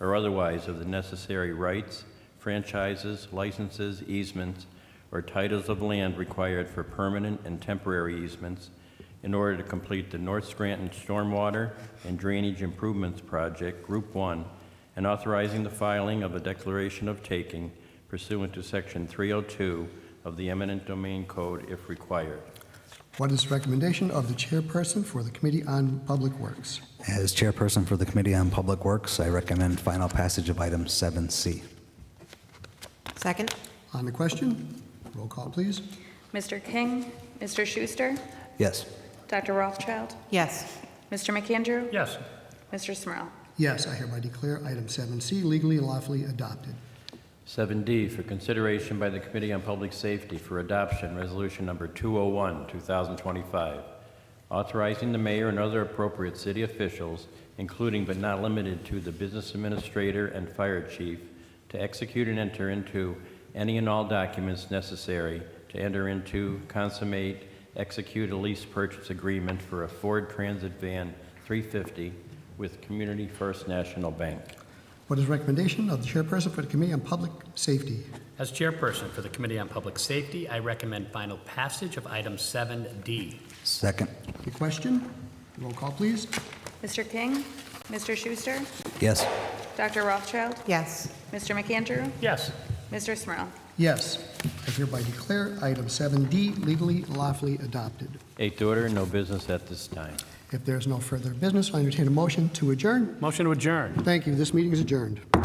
or otherwise of the necessary rights, franchises, licenses, easements, or titles of land required for permanent and temporary easements in order to complete the North Scranton Stormwater and Drainage Improvements Project, Group 1, and authorizing the filing of a declaration of taking pursuant to Section 302 of the eminent domain code if required. What is the recommendation of the chairperson for the Committee on Public Works? As chairperson for the Committee on Public Works, I recommend final passage of item 7C. Second? On the question, roll call, please. Mr. King, Mr. Schuster, Yes. Dr. Rothschild, Yes. Mr. McAndrew, yes, Mr. Smurl. Yes, I hereby declare item 7C legally and lawfully adopted. 7D for consideration by the Committee on Public Safety for adoption, Resolution Number 201, 2025, authorizing the mayor and other appropriate city officials, including but not limited to the business administrator and fire chief, to execute and enter into any and all documents necessary to enter into, consummate, execute a lease purchase agreement for a Ford Transit Van 350 with Community First National Bank. What is the recommendation of the chairperson for the Committee on Public Safety? as chairperson for the Committee on Public Safety, I recommend final passage of item 7D. Second. The question, roll call, please. Mr. King, Mr. Schuster, Yes. Dr. Rothschild, Yes. Mr. McAndrew, Yes, Mr. Smurl. Yes, I hereby declare item 7D legally and lawfully adopted. Eighth order, no business at this time. If there's no further business, I entertain a motion to adjourn. motion to adjourn. Thank you. This meeting is adjourned.